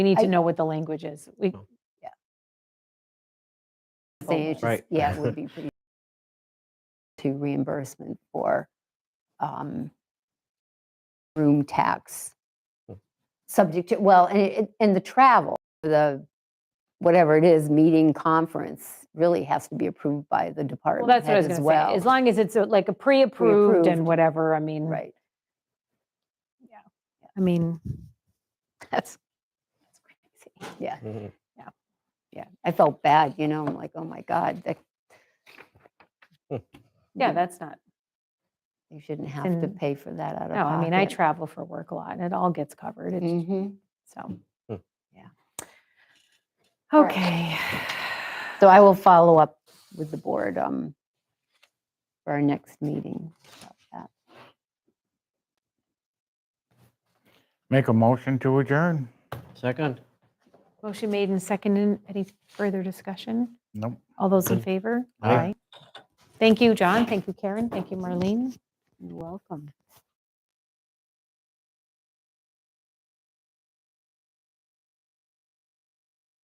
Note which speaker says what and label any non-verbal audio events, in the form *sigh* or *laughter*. Speaker 1: We need
Speaker 2: I-
Speaker 1: to know what the language is. We,
Speaker 3: No.
Speaker 1: yeah. Oh,
Speaker 2: Say it's just-
Speaker 3: Right.
Speaker 2: Yeah, it
Speaker 1: *laughs*
Speaker 2: would be pretty to reimbursement for um, room tax.
Speaker 3: Hmm.
Speaker 2: Subject to, well, and it, and the travel, the, whatever it is, meeting, conference, really has to be approved by the
Speaker 1: Well,
Speaker 2: department
Speaker 1: that's what I
Speaker 2: head
Speaker 1: was
Speaker 2: as
Speaker 1: going to say.
Speaker 2: well.
Speaker 1: As long as it's uh, like a pre-approved
Speaker 2: Pre-approved.
Speaker 1: and whatever, I mean.
Speaker 2: *laughs* Right.
Speaker 1: I mean, *laughs* that's,
Speaker 2: Yeah,
Speaker 3: Mhm.
Speaker 2: yeah. I felt bad, you know, I'm like, oh my God, that.
Speaker 3: Hmm.
Speaker 1: yeah,
Speaker 2: you-
Speaker 1: that's not,
Speaker 2: You shouldn't have to
Speaker 1: in-
Speaker 2: pay for that out of
Speaker 1: no,
Speaker 2: pocket.
Speaker 1: I mean, I travel for work a lot and it all gets covered. It's
Speaker 2: Mhm.
Speaker 1: So,
Speaker 3: Hmm.
Speaker 1: yeah.
Speaker 2: All right.
Speaker 1: Okay. *sighs*
Speaker 2: So I will follow up with the board um, for our next meeting. about that.
Speaker 4: Make a motion to adjourn?
Speaker 3: Second?
Speaker 1: Motion made and seconded. Any further discussion?
Speaker 4: Nope.
Speaker 1: All those in favor?
Speaker 3: Aye.
Speaker 1: Thank you, John. Thank you, Karen. Thank you, Marlene.
Speaker 2: You're welcome.